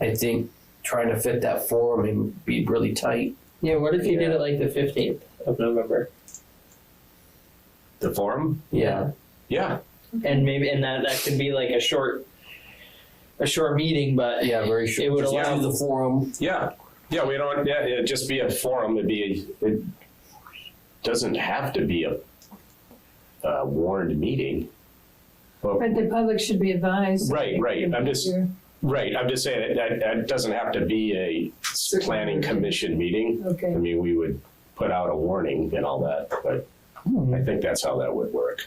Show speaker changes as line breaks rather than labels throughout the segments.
I think trying to fit that forum and be really tight.
Yeah, what if you did
Yeah.
it like the 15th of November?
The forum?
Yeah.
Yeah.
And maybe, and that, that could be like a short, a short meeting, but
Yeah, very sure.
It would
Just
allow-
do the forum.
Yeah. Yeah, we don't, yeah, it'd just be a forum. It'd be, it doesn't have to be a, a warned meeting.
But the public should be advised.
Right, right. I'm just, right. I'm just saying it, that, that doesn't have to be a s- planning commission meeting. I
Okay,
mean, we would put out a warning and all that, but I think that's how that would work.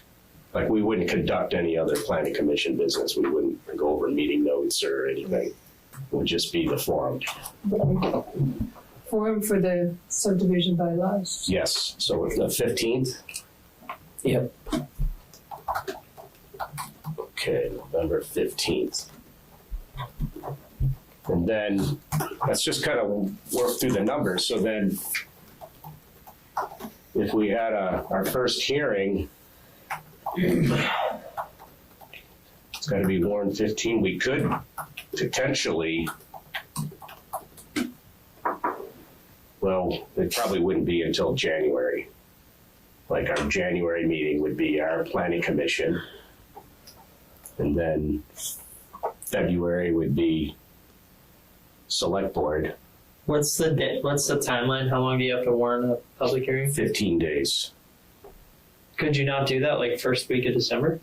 Like, we wouldn't conduct any other planning commission business. We wouldn't go over meeting notes or anything. It would just be the forum.
forum for the subdivision bylaws.
Yes, so it's the fifteenth?
Yep.
Okay, November fifteenth. And then, let's just kind of work through the numbers, so then if we had a, our first hearing, it's gotta be warned fifteen, we could potentially well, it probably wouldn't be until January. Like our January meeting would be our planning commission. And then February would be select board,
what's the di- what's the timeline? How long do you have to warn a public hearing?
fifteen days.
Could you not do that like first week of December?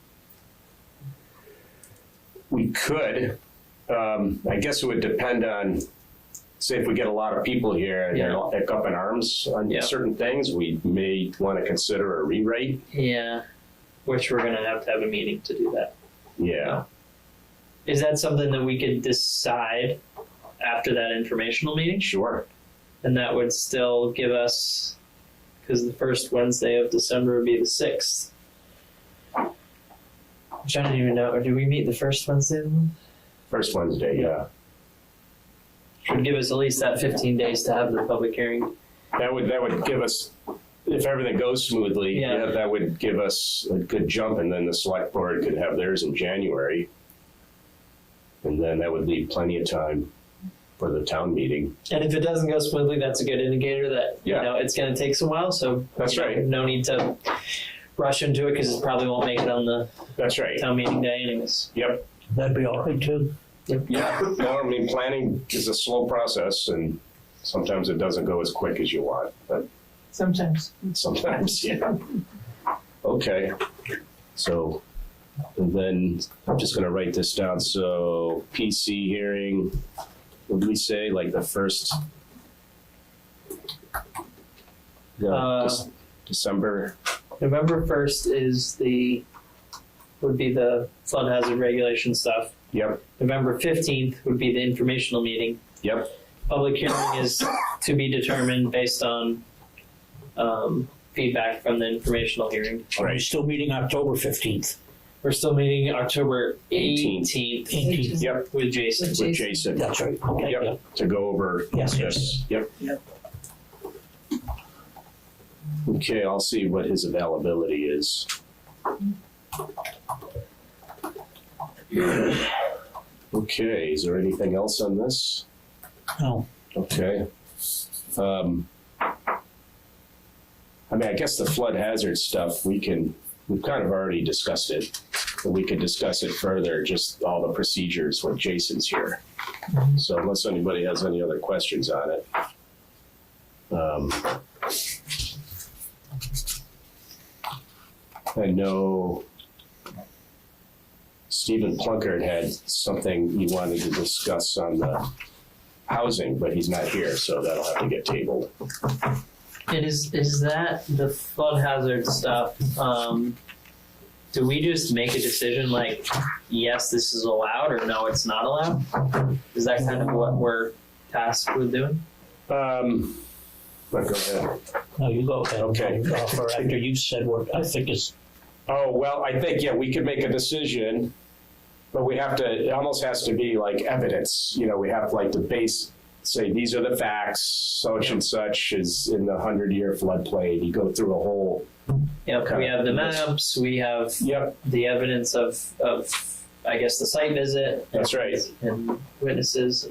We could, um, I guess it would depend on, say if we get a lot of people here and they're all like up in arms on
Yeah.
certain things, we may wanna consider a rewrite.
Yeah. Which we're gonna have to have a meeting to do that.
Yeah,
Is that something that we could decide after that informational meeting?
sure.
And that would still give us, because the first Wednesday of December would be the sixth. Which I don't even know. Do we meet the first Wednesday? of the month?
First Wednesday, yeah.
Would give us at least that fifteen days to have the public hearing.
That would, that would give us, if everything goes smoothly,
Yeah.
yeah, that would give us a good jump, and then the select board could have theirs in January. And then that would leave plenty of time for the town meeting.
And if it doesn't go smoothly, that's a good indicator that you
Yeah.
know it's going to take some while. So
That's
you know,
right.
No need to rush into it because it probably won't make it on the
That's right.
town meeting day, anyways.
Yep.
That'd be all right too.
Yeah. No, I mean, planning is a slow process, and sometimes it doesn't go as quick as you want, but
Sometimes.
sometimes, yeah. Okay, so, and then, I'm just gonna write this down, so PC hearing, would we say like the first? Yeah,
Uh,
Dec- December,
November first is the would be the flood hazard regulation stuff.
yep,
November fifteenth would be the informational meeting.
yep,
Public hearing is to be determined based on um, feedback from the informational hearing.
Are we
right,
still meeting October fifteenth?
We're still meeting October
Eighteenth.
eighteenth
Eighteenth,
yep,
with Jason.
with Jason,
that's right. Okay.
yep, to go over
Yes, yes.
this, yep.
Yep.
Okay, I'll see what his availability is. Okay, is there anything else on this?
No,
Okay. Um, I mean, I guess the flood hazard stuff, we can, we've kind of already discussed it. but We could discuss it further, just all the procedures when Jason's here. So unless anybody has any other questions on it. Um, I know Stephen Plunkard had something he wanted to discuss on the housing, but he's not here, so that'll have to get tabled.
And is is that the flood hazard stuff? Um, do we just make a decision like, yes, this is allowed, or no, it's not allowed? Is that kind of what we're tasked with doing?
Um, but go ahead.
no, you go ahead.
Okay.
Uh, For after you said what I think is,
Oh, well, I think, yeah, we could make a decision, but we have to, it almost has to be like evidence, you know, we have like the base, say, these are the facts, such and such is in the hundred-year floodplain, you go through a whole,
You know, we
Okay.
have the maps, we have
yep,
the evidence of of I guess the site visit.
That's right.
and witnesses.